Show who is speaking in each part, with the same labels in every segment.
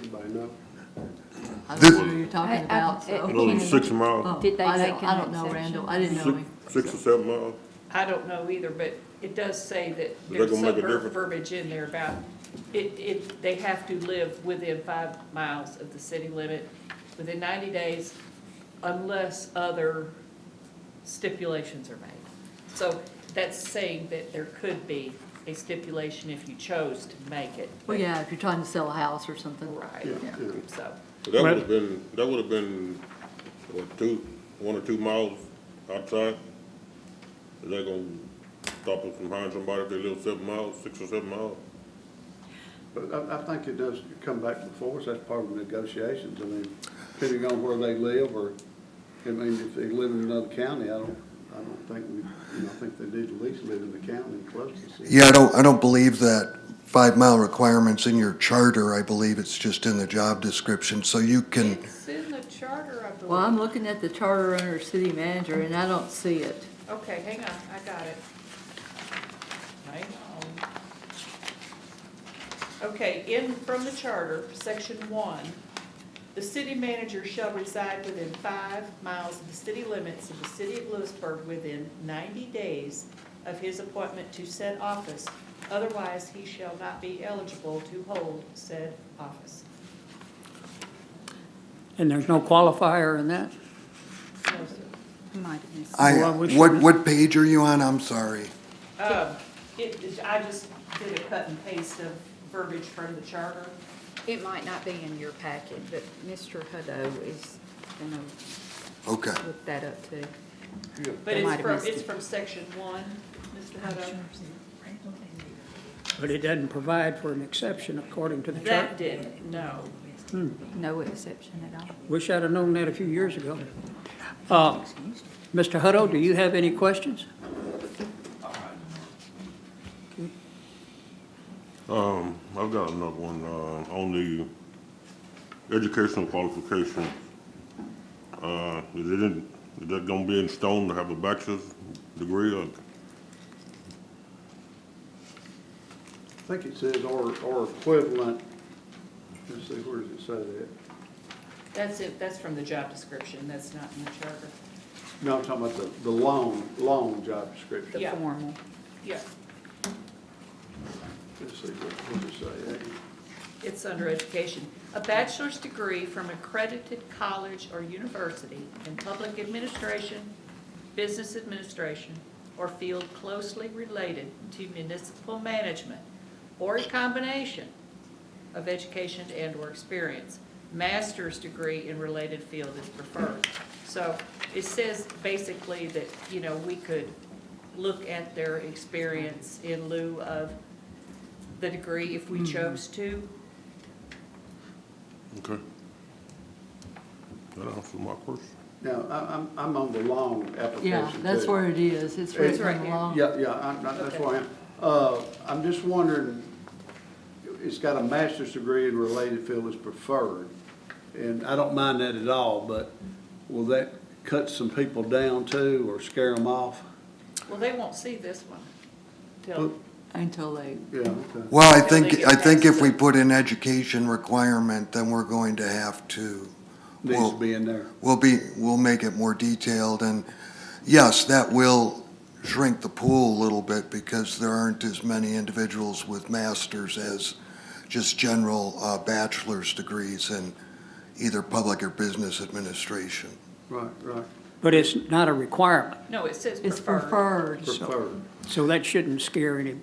Speaker 1: anybody know?
Speaker 2: I don't know who you're talking
Speaker 3: I- I-
Speaker 2: about, so.
Speaker 3: it-
Speaker 4: Only six
Speaker 2: Oh,
Speaker 4: miles,
Speaker 3: Did they
Speaker 2: I
Speaker 3: make
Speaker 2: don't-
Speaker 3: an
Speaker 2: I don't know Randall, I didn't know
Speaker 4: six,
Speaker 2: him.
Speaker 4: six or seven miles.
Speaker 5: I don't know either, but it does say that
Speaker 4: that
Speaker 5: there's
Speaker 4: gonna make
Speaker 5: some
Speaker 4: a
Speaker 5: ver-
Speaker 4: difference?
Speaker 5: verbiage in there about, it, it, they have to live within five miles of the city limit within ninety days unless other stipulations are made. So that's saying that there could be a stipulation if you chose to make it.
Speaker 2: Well, yeah, if you're trying to sell a house or something.
Speaker 5: Right,
Speaker 1: Yeah, yeah.
Speaker 5: so,
Speaker 4: So That would have been, that would have been, what, two, one or two miles outside? Is that gonna stop us from hiring somebody if they live seven miles, six or seven miles?
Speaker 1: But I, I think it does come back before us, that's part of the negotiations, I mean, depending on where they live, or, I mean, if they live in another county, I don't, I don't think we, you know, I think they need at least live in the county close to the city.
Speaker 6: Yeah, I don't, I don't believe that five-mile requirement's in your charter. I believe it's just in the job description, so you can,
Speaker 5: it's in the charter, I believe.
Speaker 2: Well, I'm looking at the charter under city manager and I don't see it.
Speaker 5: Okay, hang on, I got it. Hang on. Okay, in, from the charter, section one, the city manager shall reside within five miles of the city limits of the city of Lewisburg within ninety days of his appointment to said office. Otherwise, he shall not be eligible to hold said office.
Speaker 7: And there's no qualifier in that?
Speaker 5: No, sir.
Speaker 3: Might have missed.
Speaker 6: I,
Speaker 7: Well, we
Speaker 6: what,
Speaker 7: should-
Speaker 6: what page are you on? I'm sorry.
Speaker 5: Um, it, it- I just did a cut and paste of verbiage from the charter.
Speaker 3: It might not be in your packet, but Mr. Hutto is gonna
Speaker 6: Okay.
Speaker 3: look that up too.
Speaker 5: But
Speaker 3: They might have
Speaker 5: it's from,
Speaker 3: missed
Speaker 5: it's
Speaker 3: it.
Speaker 5: from section one, Mr. Hutto.
Speaker 7: But it doesn't provide for an exception according to the
Speaker 5: That
Speaker 7: chart.
Speaker 5: didn't, no.
Speaker 3: No exception at all.
Speaker 7: Wish I'd have known that a few years ago. Uh, Mr. Hutto, do you have any questions?
Speaker 4: Um, I've got another one, uh, on the educational qualification. Uh, is it in, is that gonna be in stone to have a bachelor's degree or?
Speaker 1: I think it says or, or equivalent, let's see, where does it say that?
Speaker 5: That's it, that's from the job description, that's not in the charter.
Speaker 1: No, I'm talking about the, the long, long job description.
Speaker 3: The
Speaker 5: Yeah.
Speaker 3: formal.
Speaker 5: Yeah,
Speaker 1: Let's see, what, what does it say?
Speaker 5: it's under education. A bachelor's degree from accredited college or university in public administration, business administration, or field closely related to municipal management, or a combination of education and/or experience. Master's degree in related field is preferred. So it says basically that, you know, we could look at their experience in lieu of the degree if we chose to.
Speaker 4: Okay. That answers my question.
Speaker 1: Now, I, I'm, I'm on the long application
Speaker 2: Yeah, that's
Speaker 1: too.
Speaker 2: where it is. It's
Speaker 1: It's
Speaker 5: right
Speaker 2: written
Speaker 5: here.
Speaker 2: along.
Speaker 1: Yeah, yeah, I'm, not- that's where I am. Uh, I'm just wondering, it's got a master's degree in related field is preferred. And I don't mind that at all, but will that cut some people down too or scare them off?
Speaker 5: Well, they won't see this one
Speaker 1: Well,
Speaker 5: till,
Speaker 2: Until they,
Speaker 1: Yeah, okay.
Speaker 6: Well, I
Speaker 5: Until they
Speaker 6: think,
Speaker 5: get
Speaker 6: I think if
Speaker 5: past
Speaker 6: we
Speaker 5: the-
Speaker 6: put in education requirement, then we're going to have to,
Speaker 1: Needs to
Speaker 6: Well-
Speaker 1: be in there.
Speaker 6: we'll be, we'll make it more detailed. And yes, that will shrink the pool a little bit because there aren't as many individuals with masters as just general uh, bachelor's degrees in either public or business administration.
Speaker 1: Right, right,
Speaker 7: But it's not a requirement,
Speaker 5: no, it says
Speaker 2: it's
Speaker 5: preferred.
Speaker 2: preferred.
Speaker 1: preferred.
Speaker 7: so that shouldn't scare any.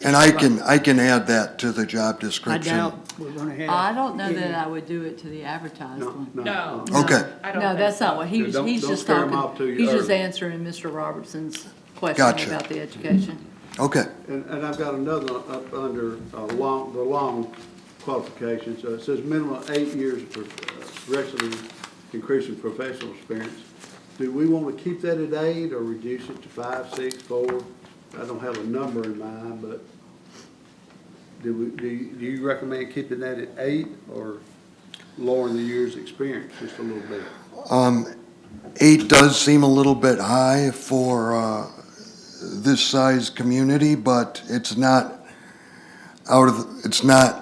Speaker 6: And I can, I can add that to the job
Speaker 7: I
Speaker 6: description.
Speaker 7: doubt we're going to have.
Speaker 2: I don't know that
Speaker 7: any-
Speaker 2: I would do it to the advertised
Speaker 1: No,
Speaker 2: one.
Speaker 1: no. uh-uh.
Speaker 5: No.
Speaker 6: Okay,
Speaker 5: I don't
Speaker 2: No,
Speaker 5: think
Speaker 2: that's
Speaker 5: so.
Speaker 2: not what, he
Speaker 1: Yeah,
Speaker 2: was,
Speaker 1: don't-
Speaker 2: he's
Speaker 1: don't
Speaker 2: just
Speaker 1: scare 'em
Speaker 2: talking,
Speaker 1: off too
Speaker 2: he's just
Speaker 1: early.
Speaker 2: answering Mr. Robertson's
Speaker 6: Gotcha.
Speaker 2: question about the education.
Speaker 6: okay.
Speaker 1: And, and I've got another up under, uh, long, the long qualifications, uh, it says minimum eight years of prof- uh, progressively increasing professional experience. Do we wanna keep that at eight or reduce it to five, six, four? I don't have a number in mind, but do we, do, you- do you recommend keeping that at eight or lowering the years' experience just a little bit?
Speaker 6: Um, Eight does seem a little bit high for uh, this size community, but it's not out of, it's not